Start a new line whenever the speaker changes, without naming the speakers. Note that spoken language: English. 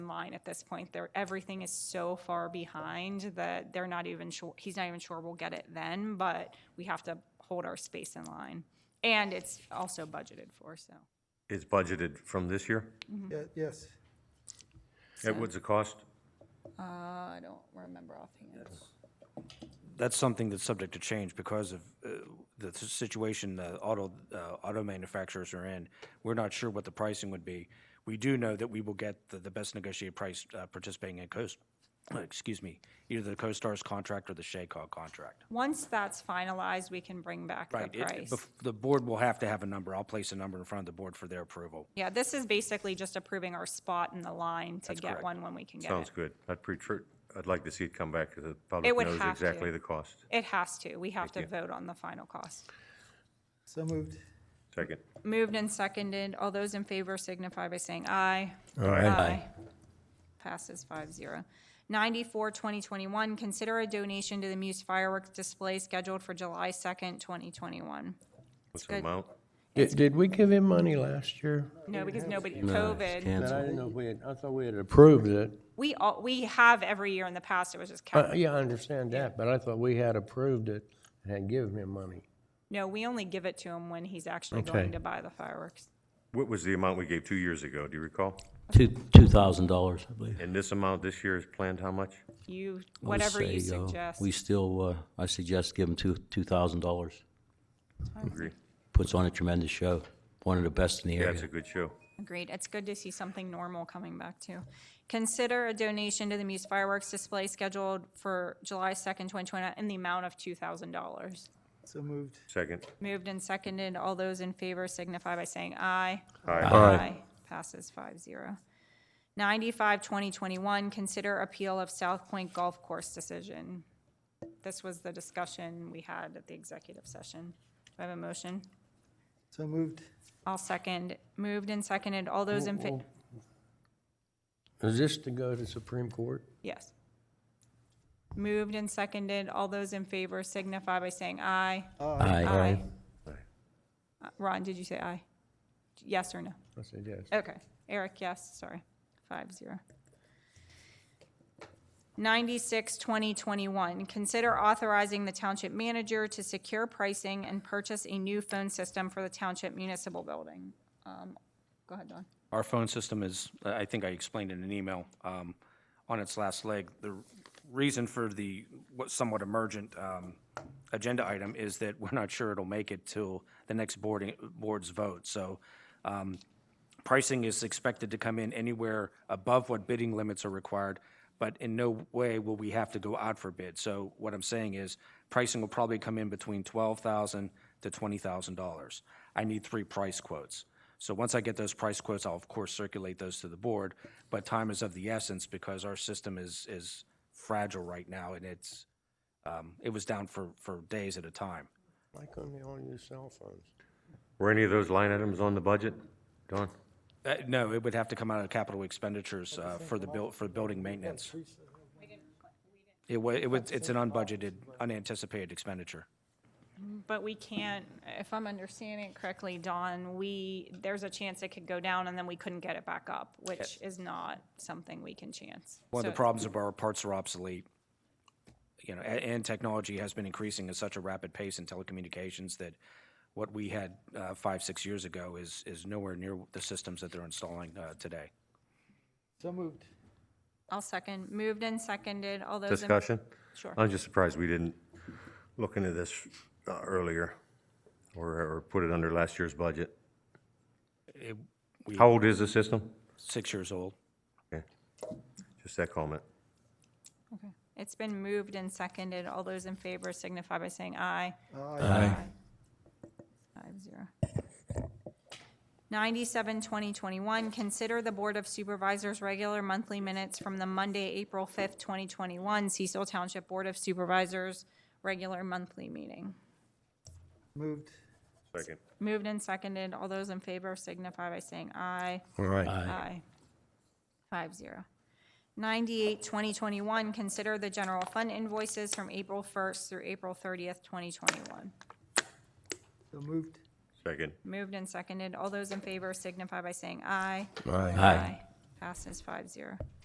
online at this point. They're, everything is so far behind that they're not even sure, he's not even sure we'll get it then, but we have to hold our space in line. And it's also budgeted for, so.
It's budgeted from this year?
Yeah, Yes,
At what's the cost?
I don't remember offhand.
That's something that's subject to change because of uh, the s- situation the auto, uh, auto manufacturers are in. We're not sure what the pricing would be. We do know that we will get the, the best negotiated price uh, participating in Coast, uh, excuse me, either the CoStarz contract or the Shaycog contract.
Once that's finalized, we can bring back the
Right, it-
price.
bef- The board will have to have a number. I'll place a number in front of the board for their approval.
Yeah, this is basically just approving our spot in the line to get
correct.
one when we can get it.
Sounds good. I'd pre, tr- I'd like to see it come back, 'cause the
It
public
would
knows
have to.
exactly the cost.
It has to. We have to vote on the final cost.
so moved.
Second.
Moved and seconded. All those in favor signify by saying aye. Uh, Passes five zero. Ninety-four, twenty twenty-one, consider a donation to the Muse fireworks display scheduled for July second, twenty twenty-one.
What's the amount?
Did, did we give him money last year?
No, because nobody, COVID,
That I didn't know if we had, I thought we had approved it.
we all, we have every year in the past, it was just
Uh,
cap.
yeah, I understand that, but I thought we had approved it and had given him money.
No, we only give it to him when he's actually
Okay.
going to buy the fireworks.
What was the amount we gave two years ago? Do you recall?
Two, two thousand dollars, I believe.
And this amount this year is planned how much?
You,
I would
whatever you
say, uh,
suggest.
We still, uh, I suggest give them two, two thousand dollars.
Agree.
Puts on a tremendous show, one of the best in the
Yeah, it's a
area.
good show.
Agreed. It's good to see something normal coming back too. Consider a donation to the Muse fireworks display scheduled for July second, twenty twenty, in the amount of two thousand dollars.
So moved.
Second.
Moved and seconded. All those in favor signify by saying aye.
Aye.
Aye. Passes five zero. Ninety-five, twenty twenty-one, consider appeal of South Point Golf Course decision. This was the discussion we had at the executive session. Do I have a motion?
So moved.
I'll second. Moved and seconded. All those in fa-
Oh. Is this to go to Supreme Court?
Yes. Moved and seconded. All those in favor signify by saying aye.
Aye.
Uh, Ron, did you say aye? Yes or no?
I said yes.
Okay. Eric, yes, sorry. Five zero. Ninety-six, twenty twenty-one, consider authorizing the township manager to secure pricing and purchase a new phone system for the township municipal building. Um, Go ahead, Don.
Our phone system is, I I think I explained in an email, um, on its last leg. The reason for the what somewhat emergent um, agenda item is that we're not sure it'll make it till the next boarding, board's vote. So um, pricing is expected to come in anywhere above what bidding limits are required, but in no way will we have to go out for bid. So what I'm saying is, pricing will probably come in between $12,000 to $20,000. I need three price quotes. So once I get those price quotes, I'll of course circulate those to the board, but time is of the essence because our system is, is fragile right now, and it's, um, it was down for, for days at a time.
Why couldn't they all use cell phones?
Were any of those line items on the budget? Don?
Uh, No, it would have to come out of capital expenditures uh, for the buil, for building maintenance. It wa, it was, it's an unbudgeted, unanticipated expenditure.
But we can't, if I'm understanding it correctly, Don, we, there's a chance it could go down and then we couldn't get it back up, which is not something we can chance.
One of
So-
the problems of our parts are obsolete. You know, and, and technology has been increasing at such a rapid pace in telecommunications that what we had uh, five, six years ago is, is nowhere near the systems that they're installing uh, today.
So moved.
I'll second. Moved and seconded. All those in.
Discussion?
Sure.
I'm just surprised we didn't look into this uh, earlier or, or put it under last year's budget. How old is the system?
Six years old.
Okay. Just that comment.
Okay. It's been moved and seconded. All those in favor signify by saying aye.
Aye.
Five zero. Ninety-seven, twenty twenty-one, consider the Board of Supervisors' regular monthly minutes from the Monday, April fifth, twenty twenty-one, Cecil Township Board of Supervisors' regular monthly meeting.
Moved.
Second.
Moved and seconded. All those in favor signify by saying aye.
All right.
Aye. Five zero. Ninety-eight, twenty twenty-one, consider the general fund invoices from April first through April thirtieth, twenty twenty-one.
So moved.
Second.
Moved and seconded. All those in favor signify by saying aye.
Aye.
Aye.
Passes five zero.